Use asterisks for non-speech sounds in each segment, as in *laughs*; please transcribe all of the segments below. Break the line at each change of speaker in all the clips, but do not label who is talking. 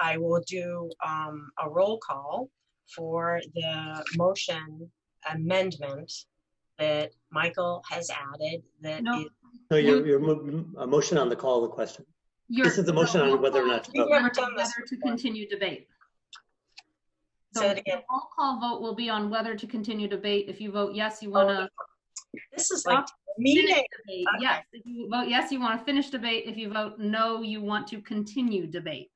I will do um, a roll call for the motion amendment that Michael has added that
No.
is-
No, your, your mo- a motion on the call of the question.
Your-
This is the motion on whether or not to
Your
vote.
roll call
We've never done this
Whether to
before.
continue debate. So
Say it again.
the Roll call vote will be on whether to continue debate. If you vote yes, you want to
this is like
finish
meeting.
debate.
Oh, Okay.
Yes, if you vote yes, you want to finish debate. If you vote no, you want to continue debate.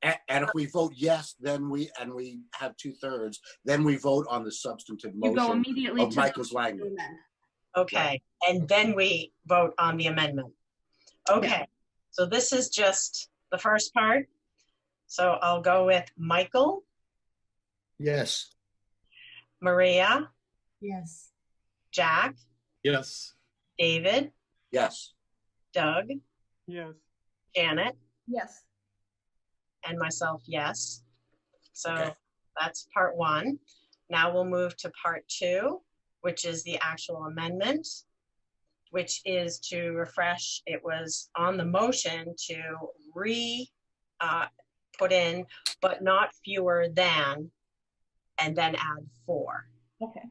And, and if we vote yes, then we, and we have two thirds, then we vote on the substantive
You go
motion
immediately
of
to.
Michael's
to
language.
amend.
Okay, and then we vote on the amendment. Okay, so this is just the first part. So I'll go with Michael,
Yes.
Maria,
Yes.
Jack,
Yes.
David,
Yes,
Doug,
Yes.
Janet,
Yes.
and myself, yes. So
Okay.
that's part one. Now we'll move to part two, which is the actual amendment, which is to refresh, it was on the motion to re, uh, put in, but not fewer than, and then add four.
Okay.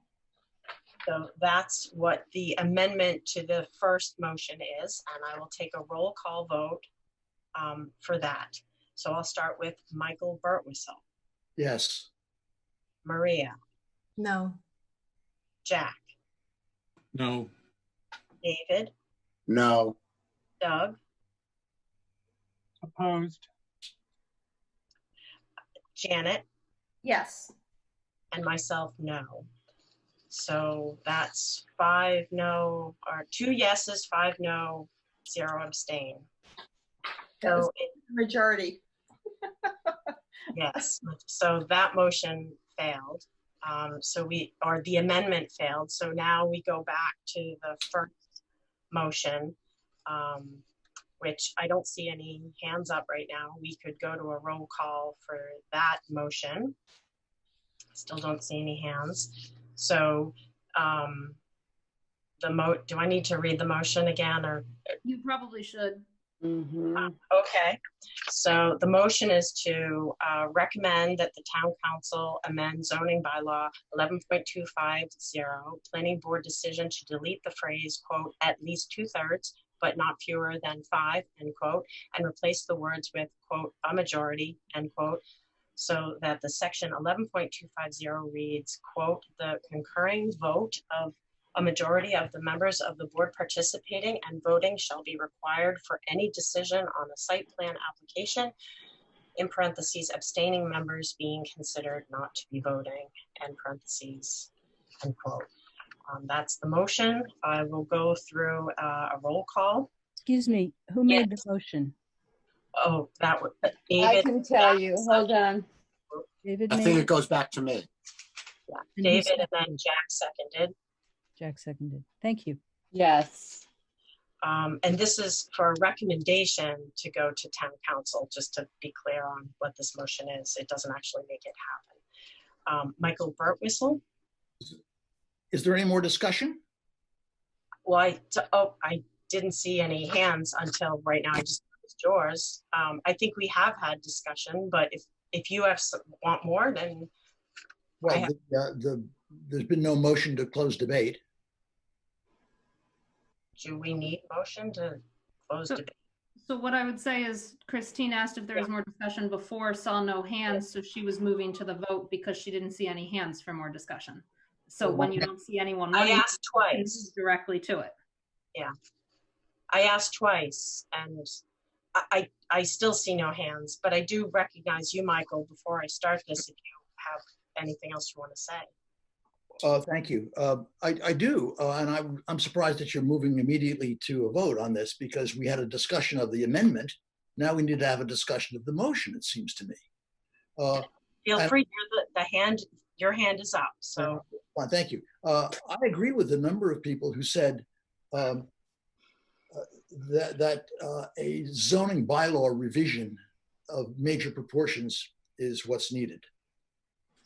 So that's what the amendment to the first motion is, and I will take a roll call vote um, for that. So I'll start with Michael Burtwistle,
Yes.
Maria,
No.
Jack,
No.
David,
no,
Doug,
Opposed.
Janet,
Yes.
and myself, no. So that's five no, or two yeses, five no, zero abstain.
That was
So it
majority.
*laughs* Yes, so that motion failed. Um, So we, or the amendment failed, so now we go back to the first motion, um, which I don't see any hands up right now. We could go to a roll call for that motion. Still don't see any hands. So um, the mo, do I need to read the motion again, or?
You probably should.
Okay, so the motion is to uh, recommend that the town council amend zoning bylaw 11.250, planning board decision to delete the phrase, quote, "at least two-thirds, but not fewer than five," end quote, and replace the words with, quote, "a majority," end quote, so that the section 11.250 reads, quote, "the concurring vote of a majority of the members of the board participating and voting shall be required for any decision on a site plan application, in parentheses abstaining members being considered not to be voting, end parentheses, end quote. Um, That's the motion. I will go through uh, a roll call.
Excuse me, who
Yeah.
made the motion?
Oh, that would,
I
David,
can tell you, hold on.
David
I think
made
it goes back to me.
and who
David
sec-
and then Jack seconded.
Jack seconded. Thank you.
Yes.
Um, and this is for a recommendation to go to town council, just to be clear on what this motion is. It doesn't actually make it happen. Um, Michael Burtwistle,
Is there any more discussion?
well, I, t- oh, I didn't see any hands until right now. I just, it's yours. Um, I think we have had discussion, but if, if you have, some- want more, then, I
Well,
have-
the, uh, the, there's been no motion to close debate.
do we need motion to close
So-
debate?
So what I would say is Christine asked if there was more discussion before, saw no hands, so she was moving to the vote because she didn't see any hands for more discussion. So when you don't see anyone,
I
running,
asked
you
twice.
move directly to it.
I asked twice, and I, I, I still see no hands, but I do recognize you, Michael, before I start this, if you have anything else you want to say.
Uh, thank you. Uh, I, I do, uh, and I'm, I'm surprised that you're moving immediately to a vote on this because we had a discussion of the amendment. Now we need to have a discussion of the motion, it seems to me. Uh,
Feel
I-
free, you're the, the hand, your hand is up, so,
Well, thank you. Uh, I agree with the number of people who said um, uh, that that uh, a zoning bylaw revision of major proportions is what's needed,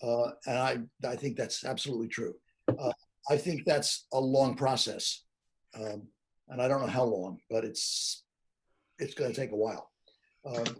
uh, and I I think that's absolutely true. Uh, I think that's a long process, um, and I don't know how long, but it's it's going to take a while. Um,